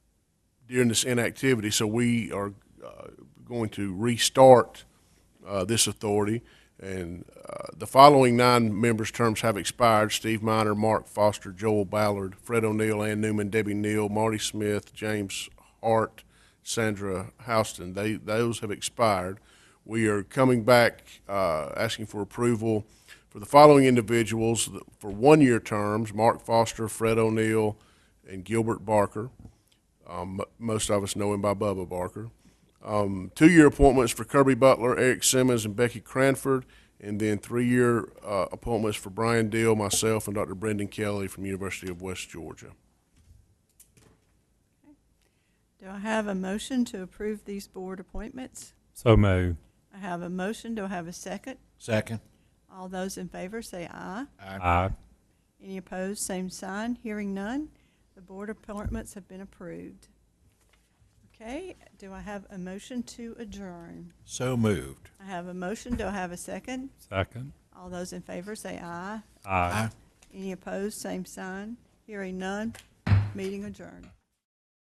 during this inactivity, so we are uh, going to restart uh, this authority. And uh, the following nine members' terms have expired: Steve Miner, Mark Foster, Joel Ballard, Fred O'Neill, Ann Newman, Debbie Neal, Marty Smith, James Hart, Sandra Houston. They those have expired. We are coming back uh, asking for approval for the following individuals for one-year terms: Mark Foster, Fred O'Neill, and Gilbert Barker. Um, m- most of us know him by Bubba Barker. Um, two-year appointments for Kirby Butler, Eric Simmons, and Becky Cranford, and then three-year uh, appointments for Brian Deal, myself, and Dr. Brendan Kelly from University of West Georgia. Do I have a motion to approve these board appointments? So moved. I have a motion. Do I have a second? Second. All those in favor say aye. Aye. Any opposed, same sign. Hearing none, the board appointments have been approved. Okay, do I have a motion to adjourn? So moved. I have a motion. Do I have a second? Second. All those in favor say aye. Aye. Any opposed, same sign. Hearing none, meeting adjourned.